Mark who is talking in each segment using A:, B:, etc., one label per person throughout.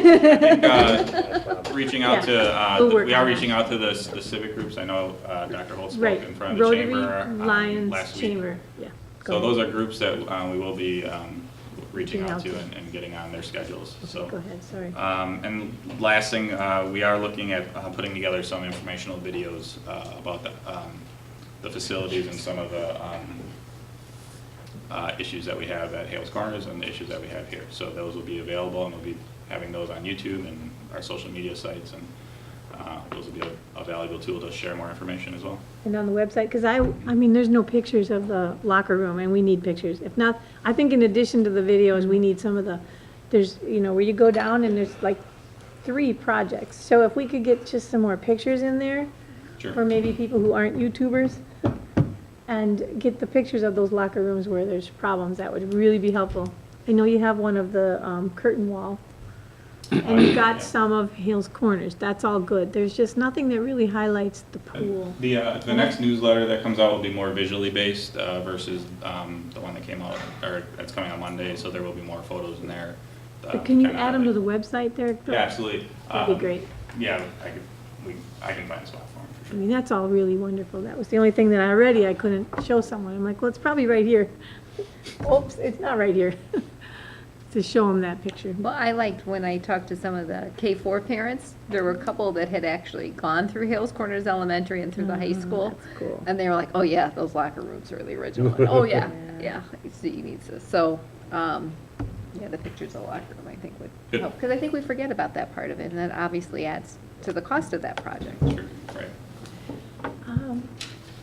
A: think, uh, Reaching out to,
B: We'll
A: uh,
B: work
A: we are
B: on that.
A: reaching out to the s- the civic groups. I know uh, Dr. Holt spoke
B: Right,
A: in front of the
B: Rotary
A: chamber um,
B: Lions
A: last week.
B: Chamber, yeah.
A: So
B: Go
A: those are groups that uh, we will be um, reaching out to
B: Reaching out
A: and- and getting on their schedules, so.
B: ahead. Go ahead, sorry.
A: Um, And last thing, uh, we are looking at uh, putting together some informational videos uh, about the um, the facilities and some of the um, uh, issues that we have at Hales Corners and the issues that we have here. So those will be available, and we'll be having those on YouTube and our social media sites, and uh, those will be a- a valuable tool to share more information as well.
B: And on the website, because I, I mean, there's no pictures of the locker room, and we need pictures. If not, I think in addition to the videos, we need some of the, there's, you know, where you go down and there's like three projects. So if we could get just some more pictures in there,
A: Sure.
B: or maybe people who aren't YouTubers, and get the pictures of those locker rooms where there's problems, that would really be helpful. I know you have one of the um, curtain wall, and you've
A: Yeah.
B: got some of Hill's Corners, that's all good. There's just nothing that really highlights the pool.
A: The, uh, the next newsletter that comes out will be more visually based, uh, versus, um, the one that came out, or that's coming on Monday, so there will be more photos in there. uh,
B: But can you
A: kinda
B: add them to the
A: highlight-
B: website there? Bill?
A: Yeah, absolutely.
B: That'd
A: Um,
B: be great.
A: Yeah, I could, we, I can find a spot for them, for
B: I
A: sure.
B: mean, that's all really wonderful. That was the only thing that already I couldn't show someone. I'm like, well, it's probably right here. Oops, it's not right here. To show them that picture.
C: Well, I liked when I talked to some of the K-4 parents, there were a couple that had actually gone through Hales Corners Elementary and through the high school.
B: that's cool.
C: And they were like, oh yeah, those locker rooms are the original. And, Oh yeah, yeah, so you need to, so, um, yeah, the pictures of the locker room, I think would
A: Good.
C: help. Because I think we forget about that part of it, and that obviously adds to the cost of that project.
B: Mm-hmm.
A: Sure, right.
B: Um,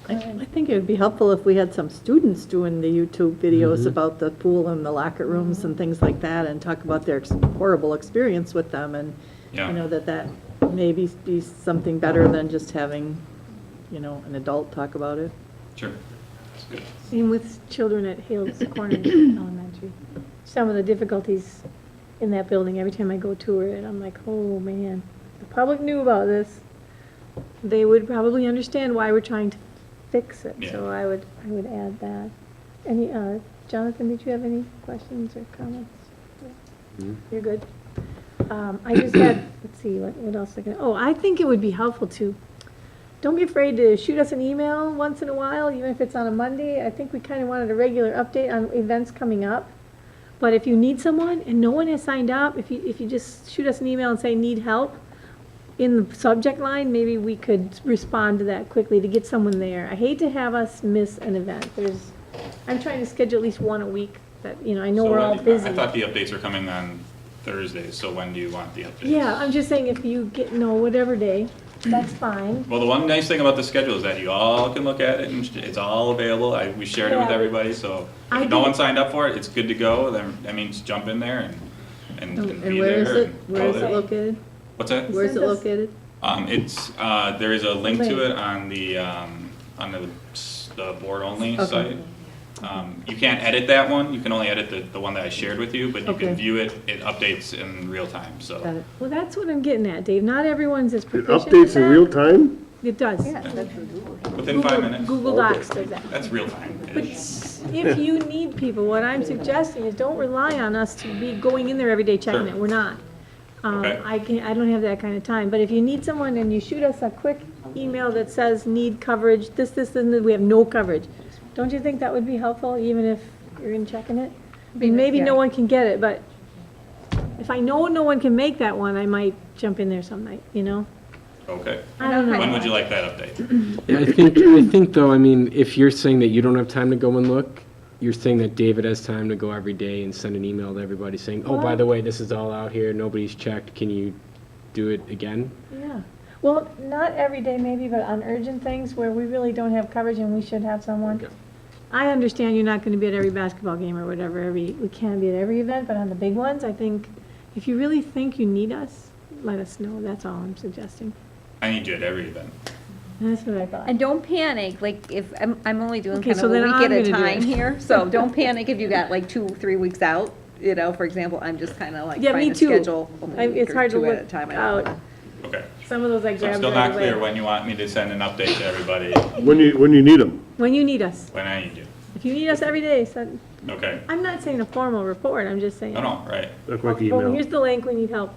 D: I I think it would be helpful if we had some students doing the YouTube videos
A: Mm-hmm.
D: about the pool and the locker rooms and things like that, and talk about their ex- horrible experience with them, and,
A: Yeah.
D: you know, that that maybe be something better than just having, you know, an adult talk about it.
A: Sure. That's good.
B: Same with children at Hales Corners Elementary. Some of the difficulties in that building, every time I go tour it, I'm like, oh, man, the public knew about this. They would probably understand why we're trying to fix it, so
A: Yeah.
B: I would, I would add that. Any, uh, Jonathan, did you have any questions or comments? You're good. Um, I just had, let's see, what, what else I can, oh, I think it would be helpful to, don't be afraid to shoot us an email once in a while, even if it's on a Monday. I think we kind of wanted a regular update on events coming up. But if you need someone and no one has signed up, if you, if you just shoot us an email and say, need help, in the subject line, maybe we could respond to that quickly to get someone there. I hate to have us miss an event. There's, I'm trying to schedule at least one a week that, you know, I know
A: So
B: we're
A: when
B: all
A: do you-
B: busy.
A: I thought the updates are coming on Thursdays, so when do you want the updates?
B: Yeah, I'm just saying if you get, no, whatever day, that's fine.
A: Well, the one nice thing about the schedule is that you all can look at it, and it's all available, I, we shared it with
B: Yeah.
A: everybody, so
B: I
A: if no one
B: did-
A: signed up for it, it's good to go, then, that means jump in there and, and and
D: And
A: be
D: where is
A: there.
D: it?
A: and
D: Where
A: go
D: is it
A: there.
D: located?
A: What's that?
D: Where is it
B: Send us-
D: located?
A: Um, it's, uh, there is a link
B: Link.
A: to it on the, um, on the, s- the board-only
D: Okay.
A: site. Um, you can't edit that one, you can only edit the, the one that I shared with you, but you
D: Okay.
A: can view it, it updates in real time, so.
D: Got it.
B: Well, that's what I'm getting at, Dave. Not everyone's as
E: It
B: proficient.
E: updates in
B: at
E: real
B: that.
E: time?
B: It does.
C: Yeah, that's what we were-
A: Within five
B: Google-
A: minutes,
B: Google Docs does that.
A: that's real time.
B: But if you need people, what I'm suggesting is don't rely on us to be going in there every day checking it.
A: Sure.
B: We're not. Um,
A: Okay.
B: I can, I don't have that kind of time. But if you need someone and you shoot us a quick email that says, need coverage, this, this, and that, we have no coverage, don't you think that would be helpful, even if you're in checking it? I mean, maybe no
C: Yeah.
B: one can get it, but if I know no one can make that one, I might jump in there some night, you know?
A: Okay,
B: I don't know.
A: when would you like that update?
F: Yeah, I think, I think though, I mean, if you're saying that you don't have time to go and look, you're saying that David has time to go every day and send an email to everybody saying, oh, by the way, this is all out here, nobody's checked, can you do it again?
B: Yeah, well, not every day maybe, but on urgent things where we really don't have coverage and we should have someone.
F: Okay.
B: I understand you're not gonna be at every basketball game or whatever, every, we can be at every event, but on the big ones, I think, if you really think you need us, let us know, that's all I'm suggesting.
A: I need you at every event.
B: That's what I thought.
C: And don't panic, like, if, I'm, I'm only doing
B: Okay,
C: kind
B: so
C: of a
B: then
C: week
B: I'm
C: at a
B: gonna do it.
C: time here, so don't panic if you got like two, three weeks out, you know, for example, I'm just kind of like
B: Yeah, me
C: trying to
B: too.
C: schedule
B: I-
C: a
B: It's
C: week or
B: hard to
C: two at a
B: look
C: time. I don't know.
B: out,
A: Okay,
B: some of those I
A: so it's
B: grabbed
A: still not
B: right
A: clear
B: away.
A: when you want me to send an update to everybody,
E: When you, when you need them?
B: When you need us,
A: when I need you.
B: if you need us every day, send,
A: Okay,
B: I'm not saying a formal report, I'm just saying.
A: no, no, right.
E: Look like
B: Well,
E: email.
B: here's the link, we need help.